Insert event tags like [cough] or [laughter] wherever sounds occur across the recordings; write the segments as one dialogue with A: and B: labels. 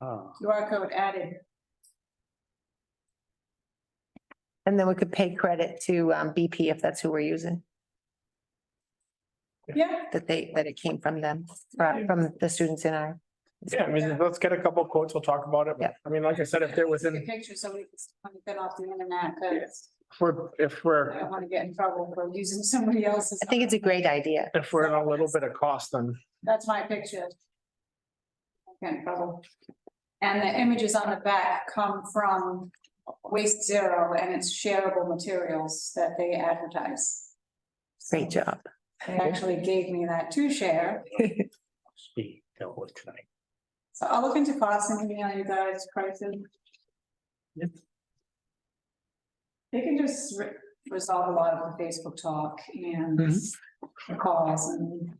A: Oh,
B: QR code added.
C: And then we could pay credit to um, BP if that's who we're using,
B: Yeah,
C: that they, that it came from them, from from the students in our.
A: yeah, I mean, let's get a couple quotes, we'll talk about it, but, I mean, like I said, if they're
B: take a
A: within,
B: picture, somebody can get off the internet, because
A: if we're, if we're,
B: I don't want to get in trouble for using [laughs] somebody else's.
C: I think it's a great idea.
A: if we're in a little bit of cost, then
B: That's my picture. Get in trouble. And the images on the back come from Waste Zero, and it's shareable materials that they advertise.
C: Great job.
B: They actually gave me that to share,
D: be dealt with tonight.
B: so I'll look into costs and email you guys prices.
D: Yep.
B: They can just re- resolve a lot of the Facebook talk and
A: Mm-hmm.
B: the calls and.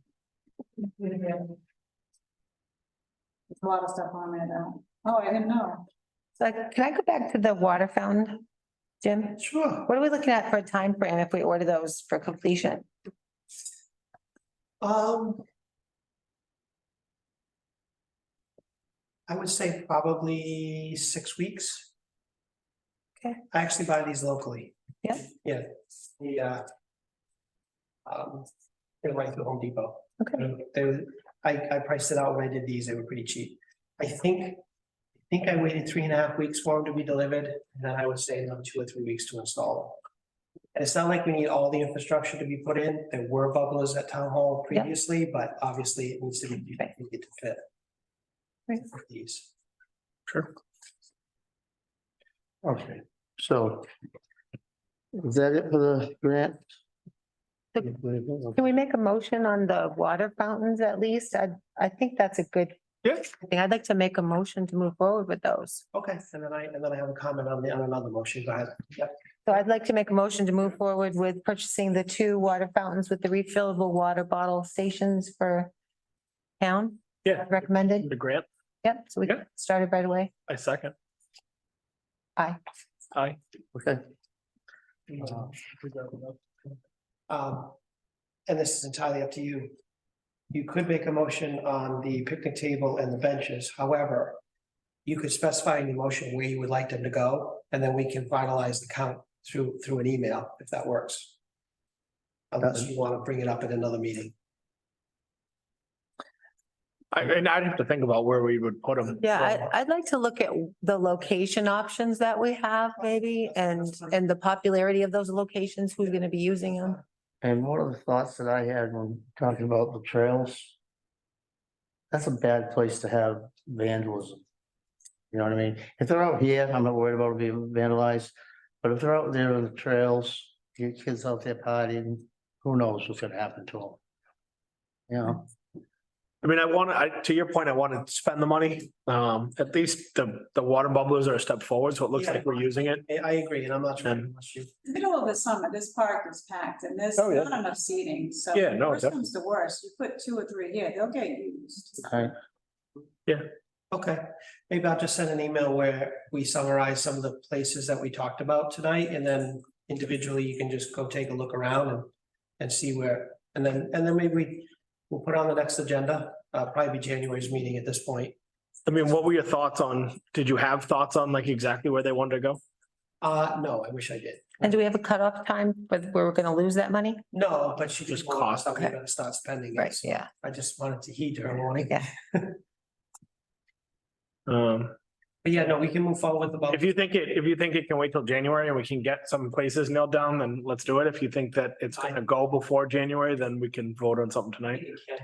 B: There's a lot of stuff on there that, oh, I didn't know.
C: So can I go back to the water fountain, Jim?
D: Sure.
C: What are we looking at for a time frame if we order those for completion?
D: Um. I would say probably six weeks.
C: Okay.
D: I actually buy these locally.
C: Yeah.
D: Yeah, the, uh. Um, they're right through Home Depot.
C: Okay.
D: They, were- I, I priced it out when I did these, they were pretty cheap. I think, I think I waited three and a half weeks for them to be delivered, and then I would say another two or three weeks to install them. And it's not like we need all the infrastructure to be put in. There were bubblers at town hall
C: Yeah.
D: previously, but obviously it needs to be, we
C: Right.
D: need to fit.
C: Right.
D: for These.
A: Sure. Okay, so. Is that it for the grant?
C: Can we make a motion on the water fountains at least? I, I think that's a good
A: Yes.
C: thing. I'd like to make a motion to move forward with those.
D: Okay, and then I, and then I have a comment on the, on another motion. Go ahead. Yep,
C: So I'd like to make a motion to move forward with purchasing the two water fountains with the refillable water bottle stations for town.
A: Yeah.
C: Recommended.
A: The grant,
C: Yep, so we
A: Yeah.
C: started right away.
A: I second.
C: Aye.
A: Aye. Uh, Okay.
D: Um, and this is entirely up to you. You could make a motion on the picnic table and the benches, however. You could specify in your motion where you would like them to go, and then we can finalize the count through, through an email, if that works. Unless you want to bring it up at another meeting.
A: I, and I'd have to think about where we would put them.
C: Yeah, I, I'd like to look at the location options that we have maybe and, and the popularity of those locations, who's going to be using them.
E: And one of the thoughts that I had when talking about the trails. That's a bad place to have vandalism. You know what I mean? If they're out here, I'm not worried about it being vandalized, but if they're out there on the trails, your kids out there partying, who knows what's gonna happen to them? You know,
A: I mean, I want to, I, to your point, I want to spend the money. Um, at least the, the water bubblers are a step forward, so it looks
D: Yeah.
A: like we're using it.
D: I, I agree, and I'm not trying to rush you.
B: Middle of the summer, this park is packed and there's
A: Oh, yeah.
B: not enough seating, so.
A: Yeah, no,
B: Worst comes to worst, you put two or three here, they'll get used.
E: I,
D: Okay, maybe I'll just send an email where we summarize some of the places that we talked about tonight, and then individually, you can just go take a look around and. And see where, and then, and then maybe we, we'll put on the next agenda, uh, probably be January's meeting at this point.
A: I mean, what were your thoughts on, did you have thoughts on like exactly where they wanted to go?
D: Uh, no, I wish I did,
C: And do we have a cutoff time where where we're going to lose that money?
D: no, but she just
A: Just
D: cost,
A: cost,
D: I'm
C: okay.
D: gonna start spending
C: Right,
D: it, so
C: yeah.
D: I just wanted to heed her warning.
C: Yeah.
A: Um,
D: But yeah, no, we can move forward with the.
A: if you think it, if you think it can wait till January and we can get some places nailed down, then let's do it. If you think that it's gonna go before January, then we can vote on something tonight.
D: Okay.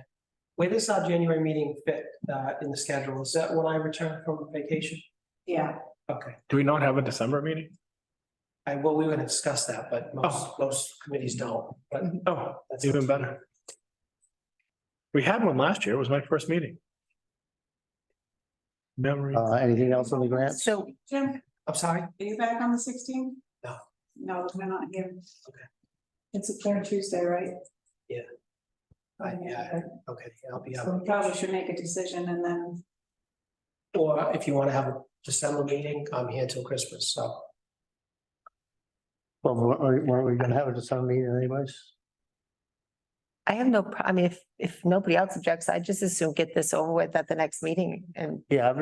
D: Where does our January meeting fit, uh, in the schedule? Is that when I return from vacation?
B: Yeah,
D: Okay.
A: Do we not have a December meeting?
D: I, well, we were gonna discuss that, but most, most committees don't, but
A: Oh,
D: that's
A: even better. We had one last year. It was my first meeting. Memory.
E: uh, anything else on the grants?
C: So
B: Jim,
D: I'm sorry,
B: are you back on the sixteenth?
D: No.
B: No, we're not here.
D: Okay.
B: It's a clear Tuesday, right?
D: I, yeah, okay, I'll be
B: So
D: out.
B: we probably should make a decision and then,
D: Or if you wanna have a December meeting, I'm here till Christmas, so.
E: Well, weren't we- weren't we gonna have a December meeting anyways?
C: I have no, pro- I mean, if, if nobody else objects, I just assume get this over with at the next meeting and
E: Yeah, I've